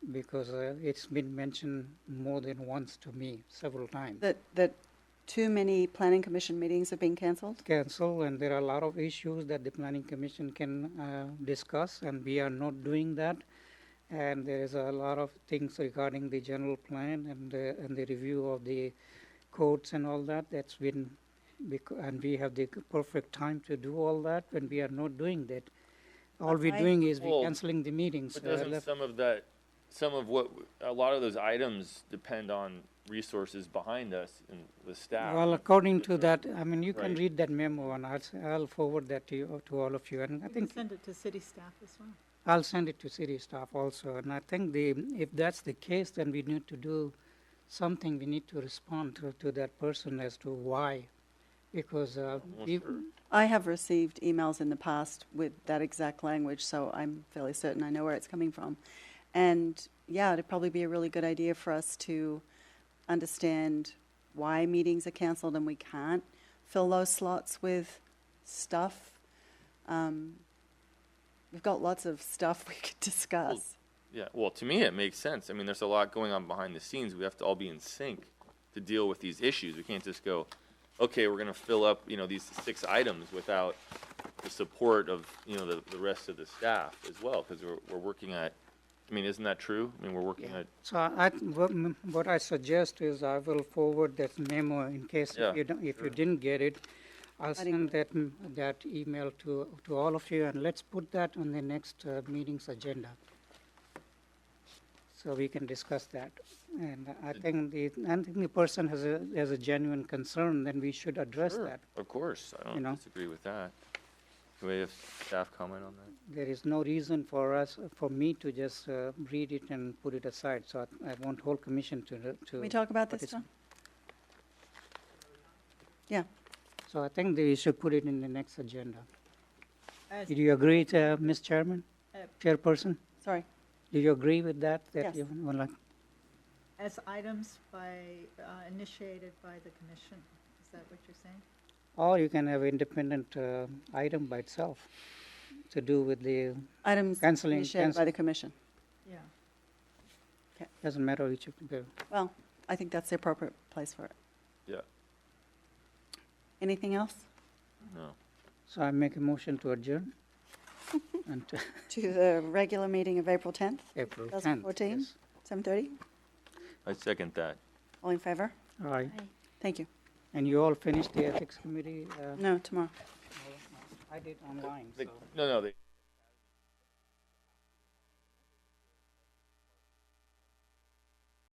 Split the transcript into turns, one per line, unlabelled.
because uh, it's been mentioned more than once to me, several times.
That, that too many planning commission meetings have been canceled?
Cancel, and there are a lot of issues that the planning commission can uh, discuss, and we are not doing that. And there is a lot of things regarding the general plan and, uh, and the review of the codes and all that, that's been, bec- and we have the perfect time to do all that, and we are not doing that. All we're
I-
doing is we
Well,
canceling the meetings.
But
uh,
doesn't
left-
some of that, some of what, a lot of those items depend on resources behind us and the staff?
Well, according to that, I mean, you can
Right.
read that memo and I'll, s- I'll forward that to you, to all of you. And I
We can
think
send it to city staff as well.
I'll send it to city staff also. And I think the, if that's the case, then we need to do something. We need to respond to, to that person as to why. Because, uh,
Well,
we,
sure.
I have received emails in the past with that exact language, so I'm fairly certain I know where it's coming from. And yeah, it'd probably be a really good idea for us to understand why meetings are canceled and we can't fill those slots with stuff. Um, we've got lots of stuff we could discuss.
Oh,
Yeah, well, to me, it makes sense. I mean, there's a lot going on behind the scenes. We have to all be in sync to deal with these issues. We can't just go, okay, we're gonna fill up, you know, these six items without the support of, you know, the, the rest of the staff as well, because we're, we're working at, I mean, isn't that true? I mean, we're working at,
so I, what m- what I suggest is I will forward that memo in case
Yeah,
if you don't, if you
sure.
didn't get it. I'll send
didn't
that, m- that email to, to all of you and let's put that on the next uh, meeting's agenda. So we can discuss that. And I think the, I think the person has a, has a genuine concern, then we should address
Sure.
that.
of course, I
You know.
don't disagree with that. Can we have staff comment on that?
There is no reason for us, for me to just uh, read it and put it aside. So I- I want whole commission to, to.
Can we talk about this,
participate.
John? Yeah.
So I think they should put it in the next agenda.
As-
Do you agree, uh, Ms. Chairman,
Uh,
Chairperson?
Sorry.
Do you agree with that? that
Yes.
you would like-
As items by, uh, initiated by the commission, is that what you're saying?
Or you can have independent uh, item by itself to do with the,
Items
Canceling-
initiated by
cancel-
the commission.
Yeah.
doesn't matter which you do.
Well, I think that's the appropriate place for it.
Yeah.
Anything else?
No.
So I make a motion to adjourn until
To the regular meeting of April 10th,
April 10th.
2014?
yes.
7:30?
I second that.
All in favor?
All right.
Thank you.
And you all finished the ethics committee? uh,
No, tomorrow.
I did online,
The-
so.
No, no, the